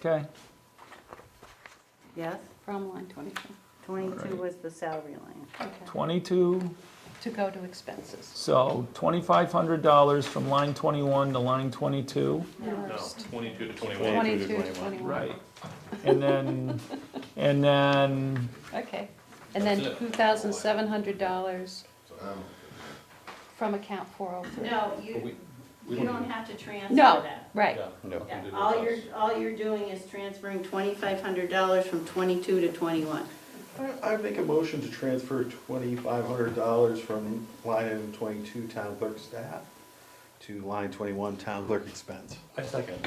Okay, Yes, From line 22. twenty-two Alright. was the salary line. Okay. twenty-two, To go to expenses. so twenty-five hundred dollars from line twenty-one to line twenty-two. No, First. twenty-two to twenty-one. 22 to 21. And then, and then, Okay. And then That's it. $2,700 from account 403. No, But you, we- we you don't- don't have to transfer No, that. right. Yeah, we can do Yeah, the all you're, cost. all you're doing is transferring twenty-five hundred dollars from twenty-two to twenty-one. I I Uh, make a motion to transfer twenty-five hundred dollars from line item twenty-two town clerk staff to line twenty-one town clerk expense. I second.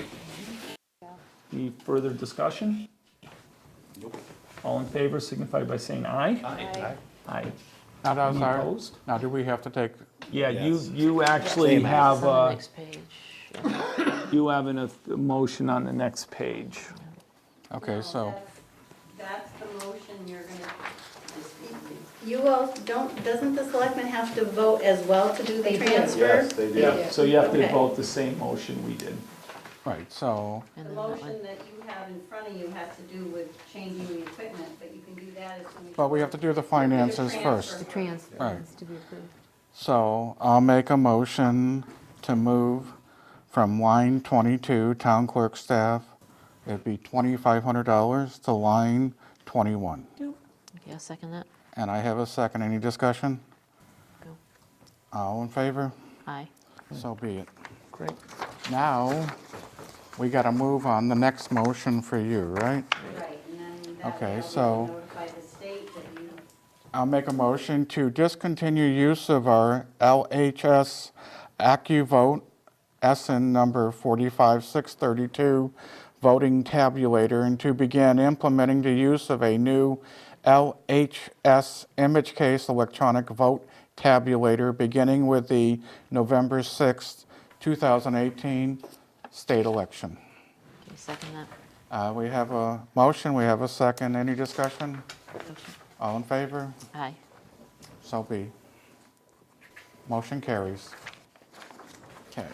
any further discussion? Nope. All in favor signify by saying aye. Aye. Aye. Now, that was Any our- opposed? now, do we have to take, Yeah, you, Yes. you actually Same as. have, on the uh, next page. you have an, a motion on the next page. okay, No, so, That's that's the motion you're gonna, you all, don't, doesn't the selectmen have to vote as well to do the They do. transfer? Yes, they do. Yeah, so you have to Okay. vote the same motion we did. right, so, The And then that one. motion that you have in front of you has to do with changing the equipment, but you can do that as soon as. but we have to do the finances transfer. first. Trans, Right. has to be approved. So I'll make a motion to move from line 22, town clerk staff, it'd be $2,500 to line 21. Okay, I'll second that. And I have a second, any discussion? Go. All in favor? Aye. So be it. Great. Now, we got to move on the next motion for you, right? Right, and then that Okay, way so- I'll notify the state that you. I'll make a motion to discontinue use of our LHS AccuVote SN number 45632 voting tabulator and to begin implementing the use of a new LHS image case electronic vote tabulator beginning with the November 6th, 2018 state election. Okay, second that. Uh, We have a motion, we have a second. Any discussion? All in favor? Aye. So be. Motion carries. Okay.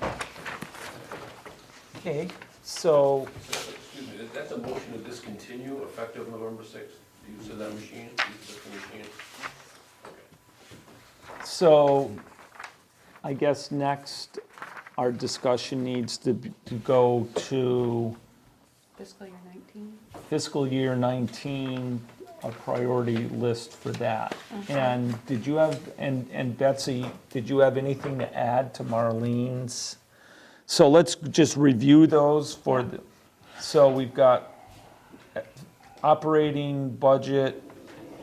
Okay, so Excuse me, that- that's a motion to discontinue effective November sixth, the use of that machine, use of the machine. So I guess next, our discussion needs to b- to go to Fiscal year 19. fiscal year 19, a priority list for that. And did you have, and and Betsy, did you have anything to add to Marlene's? So let's just review those for, the. so we've got uh, operating budget.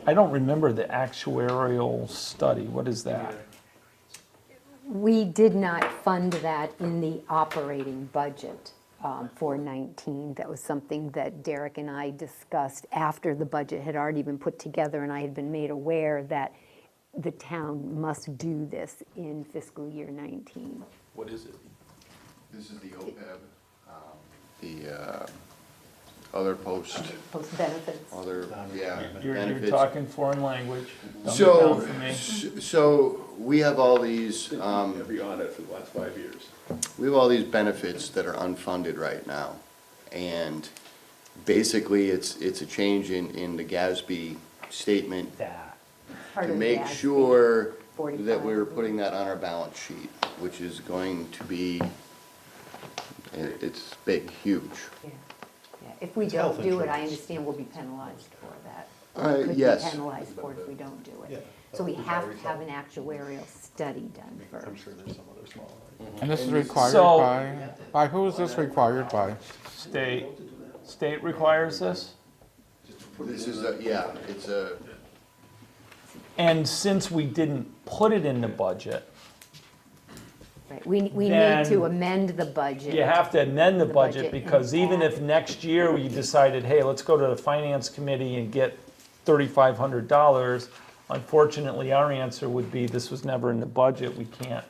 I don't remember the actuarial study. What is that? We did not fund that in the operating budget um, for 19. That was something that Derek and I discussed after the budget had already been put together, and I had been made aware that the town must do this in fiscal year 19. What is it? This is the OPEB, um, the uh, other post, Post benefits. other, yeah. You're, you're benefits. talking foreign language. Dumb it down So, for me. s- so we have all these, um, Every audit for the last five years. we have all these benefits that are unfunded right now. And basically, it's, it's a change in, in the GASB statement That. part to of make that. sure that 45. we're putting that on our balance sheet, which is going to be, it- it's big, huge. Yeah. Yeah. If we health don't do it, I insurance. understand we'll be penalized for that. Uh, We could be yes. penalized for it if we don't do Yeah. it. So we We've have already to have thought- an actuarial study done first. I'm sure there's some other small one. And this is required So- by, by who is this required by? State, state requires this? This is, a yeah, it's a, And since we didn't put it in the budget, Right, we, we need Then- to amend the budget. you have to amend the The budget budget. because even if next year we decided, hey, let's go to the finance committee and get thirty-five hundred dollars, unfortunately, our answer would be this was never in the budget, we can't.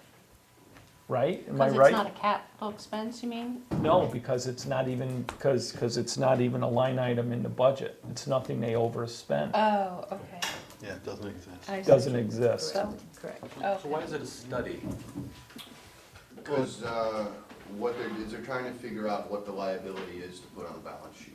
Right? Am I Because right? it's not a capital expense, you mean? No, because it's not even, because, because it's not even a line item in the budget. It's nothing they overspend. Oh, okay. Yeah, it doesn't exist. I see. Doesn't exist. So, Correct. So why is it a study? uh, because what they're, is they're trying to figure out what the liability is to put on the balance sheet.